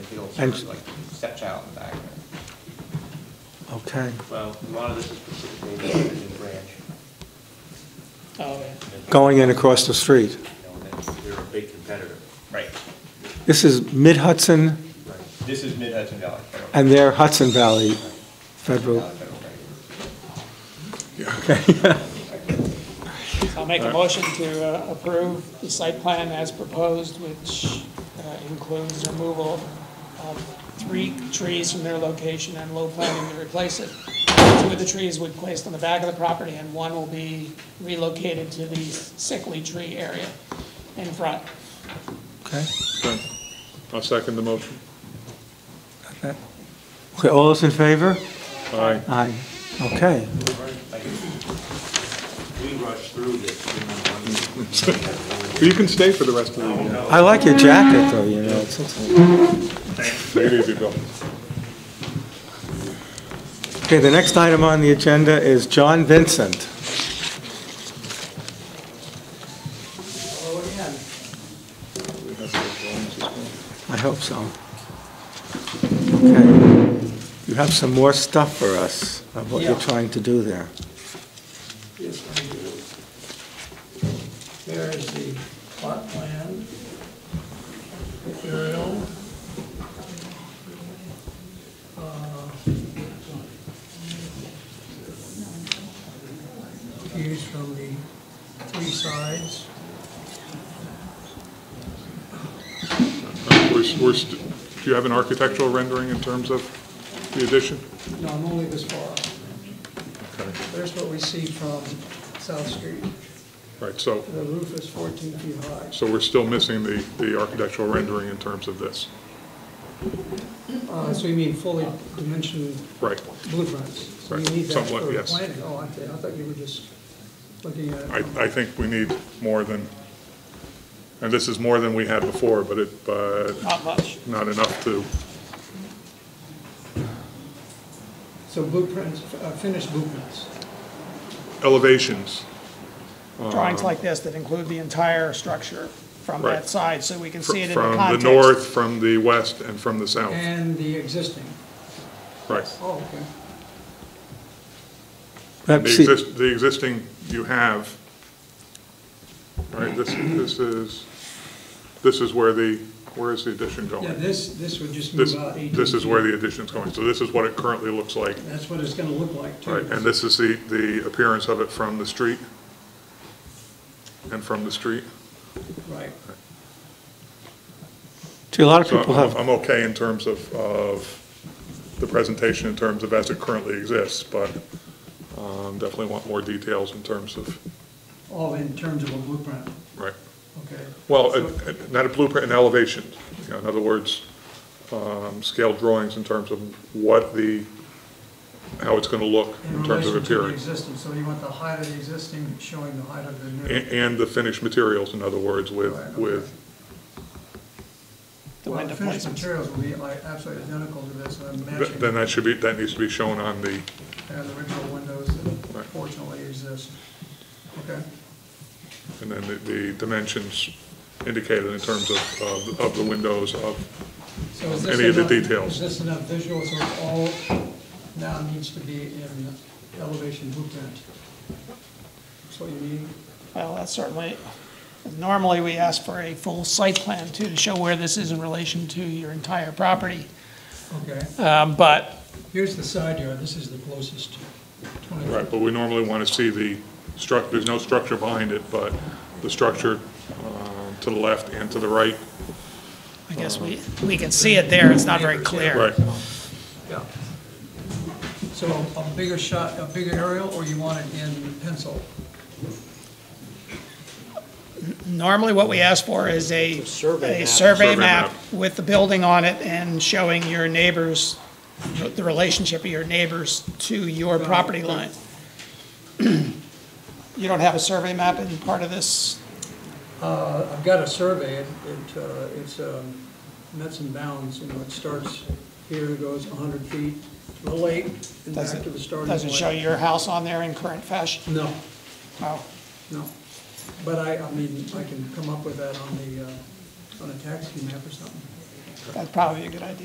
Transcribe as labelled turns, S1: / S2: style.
S1: fields
S2: And-
S1: for like step child in the back there.
S2: Okay,
S3: Well, a lot of this is specifically the Huntington Branch,
S4: Oh, yeah.
S2: going in across the street.
S3: you know, and that's- they're a big competitor.
S1: Right,
S2: This is Mid Hudson
S3: Right.
S1: this is Mid Hudson Valley Federal.
S2: and their Hudson Valley Federal.
S1: Valley Federal Bank.
S4: So I'll make a motion to uh, approve the site plan as proposed, which uh, includes removal of three trees from their location and low planting to replace it. Two of the trees were placed on the back of the property, and one will be relocated to the sickly tree area in front.
S2: Okay,
S5: Okay. I'll second the motion.
S2: Okay. all those in favor?
S5: Aye.
S2: Aye. Okay,
S3: Like, We rushed through this. you know, one meeting.
S5: You can stay for the rest of the meeting.
S2: I like your jacket though, you know, it's- it's-
S5: Take it easy, Bill.
S2: Okay, the next item on the agenda is John Vincent. I hope so. Okay. You have some more stuff for us of what you're trying to do there.
S6: Yes, I do. There is the plot plan, aerial. Uh, Views from the three sides.
S5: Uh, We're, we're, st- do you have an architectural rendering in terms of the addition?
S6: No, I'm only this far.
S5: Okay.
S6: There's what we see from South Street.
S5: Right, so,
S6: The roof is 14 feet high.
S5: so we're still missing the, the architectural rendering in terms of this.
S6: Uh, So you mean fully dimensioned
S5: Right.
S6: blueprints? So you
S5: Right,
S6: need that for
S5: somewhat,
S6: the
S5: yes.
S6: planning? Oh, I thought- I thought you were just looking at it.
S5: I, I think we need more than, and this is more than we had before, but it, uh,
S4: Not much.
S5: not enough to,
S6: So blueprints, uh, finished blueprints.
S5: elevations.
S4: Drawings like this that include the entire structure from
S5: Right.
S4: that side, so we can see it in the
S5: From the
S4: context.
S5: north, from the west, and from the south.
S6: And the existing.
S5: Right.
S6: Oh, okay.
S2: But
S5: The
S2: see-
S5: exist, the existing you have, right, this, this is, this is where the, where is the addition
S6: Yeah,
S5: going?
S6: this, this would just
S5: Oh, This,
S6: move out 18
S5: this is where
S6: feet.
S5: the addition's going, so this is what it currently looks like,
S6: That's what it's going to look like, too.
S5: right? And this is the, the appearance of it from the street? And from the street?
S6: Right.
S2: see, a lot of
S5: So
S2: people
S5: I'm,
S2: have,
S5: I'm okay in terms of, of the presentation, in terms of as it currently exists, but um, definitely want more details in terms of,
S6: All in terms of a blueprint,
S5: right?
S6: okay.
S5: Well, a- a- not a blueprint, an elevation. You know, In other words, um, scale drawings in terms of what the, how it's going to look in terms of
S6: relation to the
S5: appearance.
S6: existing, so you want the height of the existing showing the height of the
S5: A-
S6: new.
S5: And the finished materials, in other words, with,
S6: Right, okay.
S5: with,
S4: The
S6: Well,
S4: window
S6: the finished
S4: placements.
S6: materials will be like absolutely identical to this, and
S5: th-
S6: matching
S5: then
S6: the
S5: that should be, that needs to be shown on the,
S6: original windows that
S5: Right.
S6: fortunately exist. Okay,
S5: and then the- the dimensions indicated in terms of, of- of the windows of,
S6: so is this
S5: Any of the
S6: enough-
S5: details.
S6: Is this enough visual, so it all now needs to be in elevation blueprint? That's what you need?
S4: Well, that's certainly, normally we ask for a full site plan too, to show where this is in relation to your entire property.
S6: Okay,
S4: Um, But
S6: here's the side yard, this is the closest, 20
S5: right, but we normally want to see the struct, there's no structure behind it, but the structure uh, to the left and to the right.
S4: I guess we, we can see it there, it's not very clear.
S5: Right.
S6: Yeah. So a bigger shot, a bigger aerial, or you want it in pencil?
S4: Normally, what we ask for is a, a survey
S5: Survey
S4: map
S5: map.
S4: with the building on it and showing your neighbors, the- the relationship of your neighbors to your property line. You don't have a survey map in part of this?
S6: Uh, I've got a survey, it, it, uh, it's um, nuts and bounds, you know, it starts here, and goes 100 feet to the lake, and
S4: does
S6: back
S4: it-
S6: to the starting point.
S4: Doesn't show your house on there in current fashion?
S6: No,
S4: Oh.
S6: no. But I, I mean, I can come up with that on the, uh, on a tax map or something.
S4: That'd probably be a good idea.